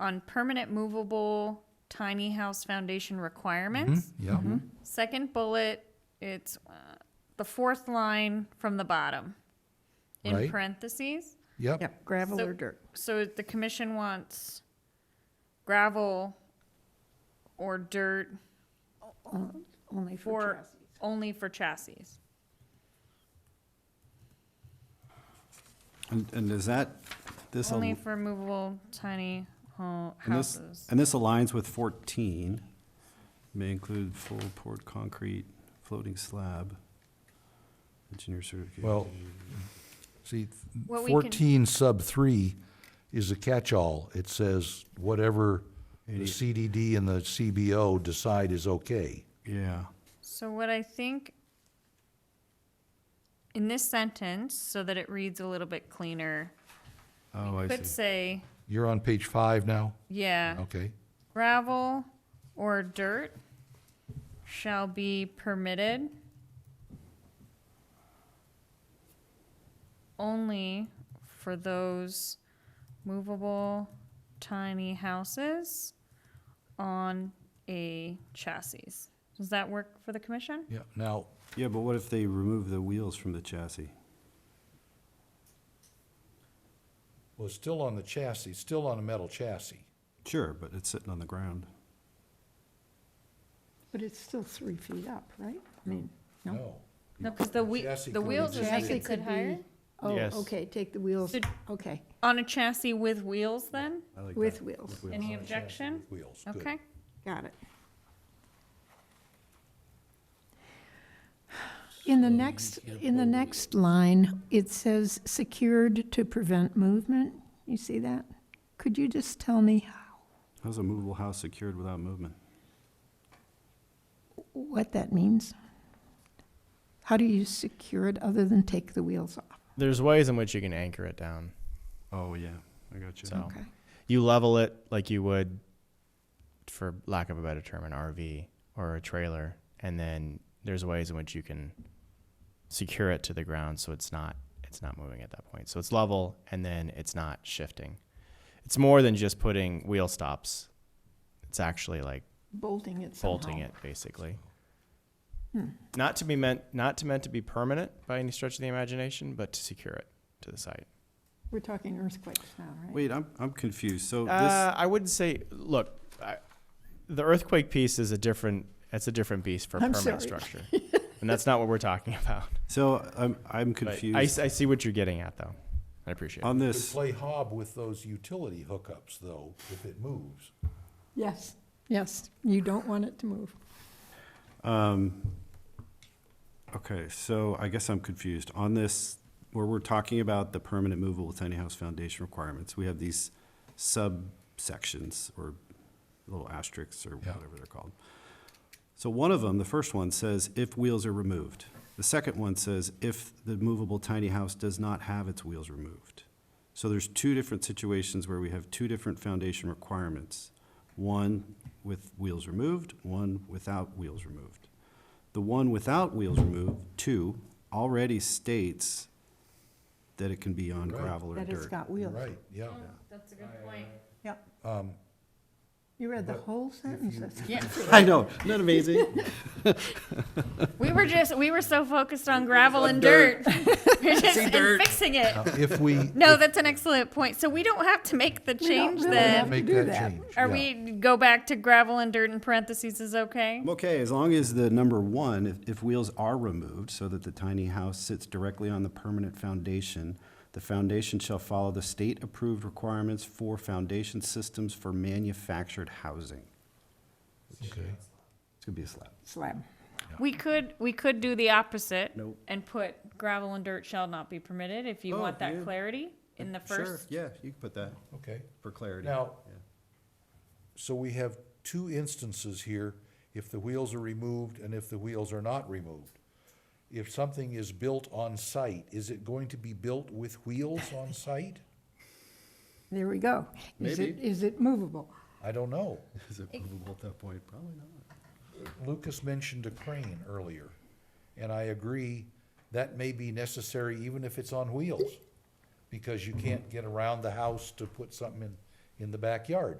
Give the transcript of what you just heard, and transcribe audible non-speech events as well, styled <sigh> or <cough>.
on permanent movable tiny house foundation requirements. Yeah. Mm-hmm. Second bullet, it's uh, the fourth line from the bottom in Right. parentheses. Yep. Yep, gravel So- or dirt. So the commission wants gravel or dirt on- Only for for chassis. only for chassis. And, and is that, this, al- Only for movable tiny ho- and this, houses. and this aligns with fourteen, may include full poured concrete, floating slab, engineer certification. Well, see, What we can- fourteen sub three is a catch-all. It says whatever the CDD and the CBO decide is okay. Yeah, So what I think in this sentence, so that it reads a little bit cleaner, oh, I could see. say, You're on page five now? yeah, Okay. gravel or dirt shall be permitted only for those movable tiny houses on a chassis. Does that work for the commission? Yeah, now, Yeah, but what if they remove the wheels from the chassis? well, it's still on the chassis, still on a metal chassis. Sure, but it's sitting on the ground. But it's still three feet up, right? I mean, no? No. No, because the wheel, Chassis the could wheels are exist. Chassis making it could higher. be- Oh, Yes. okay, take the wheels, Should- okay, On a chassis with wheels then? I like with that. wheels, Wheels. Any objection? Wheels, good. Okay. got it. In the next, in the next line, it says secured to prevent movement. You see that? Could you just tell me How's a movable house secured without movement? what that means? How do you secure it other than take the wheels off? There's ways in which you can anchor it down. Oh, yeah, I got you. So- Okay, You level it like you would, for lack of a better term, an RV or a trailer, and then there's ways in which you can secure it to the ground so it's not it's not moving at that point. So it's level and then it's not shifting. It's more than just putting wheel stops. It's actually like bolting it somehow. Hmm. bolting it basically. Not to be meant not to meant to be permanent by any stretch of the imagination, but to secure it to the site. We're talking earthquakes now, right? Wait, I'm, I'm confused, so this, Uh, I wouldn't say. Look, I, the earthquake piece is a different. That's a different beast for I'm sorry. permanent structure, and that's not what we're talking <laughs> about. so I'm, I'm But I- confused. I, see what you're getting at, though. I appreciate it. On Could this, play hob with those utility hookups, though, if it moves. Yes, yes, you don't want it to move. um, okay, so I guess I'm confused. On this, where we're talking about the permanent movable tiny house foundation requirements, we have these subsections or little asterisks or Yeah. whatever they're called. So one of them, the first one says if wheels are removed. The second one says if the movable tiny house does not have its wheels removed. So there's two different situations where we have two different foundation requirements. One with wheels removed, one without wheels removed. The one without wheels removed, two, already states that it can be on Right. gravel or dirt. That it's got wheels. Right, yeah. That's a good uh, point. Yep. You read the but whole sentence. you- <laughs> that's- Yeah, <laughs> I know, isn't that amazing? we were just, we were so focused on gravel and dirt. <laughs> We're just and fixing it. Now, If we. <laughs> No, that's an excellent point. So we don't have to make the don't change really then. have- Make do that that. change. Are yeah. we, go back to gravel and dirt in parentheses is okay? I'm okay, as long as the number one, if, if wheels are removed so that the tiny house sits directly on the permanent foundation, the foundation shall follow the state-approved requirements for foundation systems for manufactured housing. Okay. It's gonna be a slab. Slab. We could, we could do the opposite. Nope. And put gravel and dirt shall not be permitted if you Oh, want yeah. that clarity in the Sure, first. yeah, you can put that Okay. for clarity. Now, so we have two instances here, if the wheels are removed and if the wheels are not removed. If something is built on site, is it going to be built with wheels on site? There we go. Is it, Maybe. is it movable? I don't know. <laughs> Is it movable at that point? Probably not. Lucas mentioned a crane earlier, and I agree, that may be necessary even if it's on wheels, because you can't get around the house to put something in, in the backyard.